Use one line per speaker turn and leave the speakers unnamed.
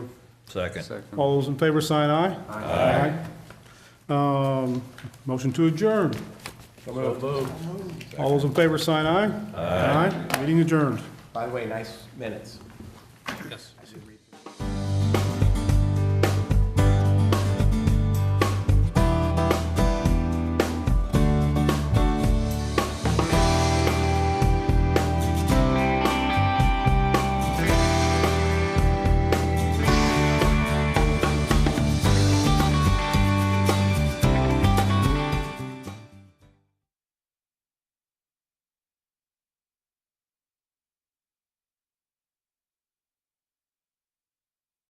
Second.
Second.
All those in favor, sign aye. Aye. Um, Motion to adjourn. All those in favor, sign aye. Aye. Meeting adjourned.
By the way, nice minutes.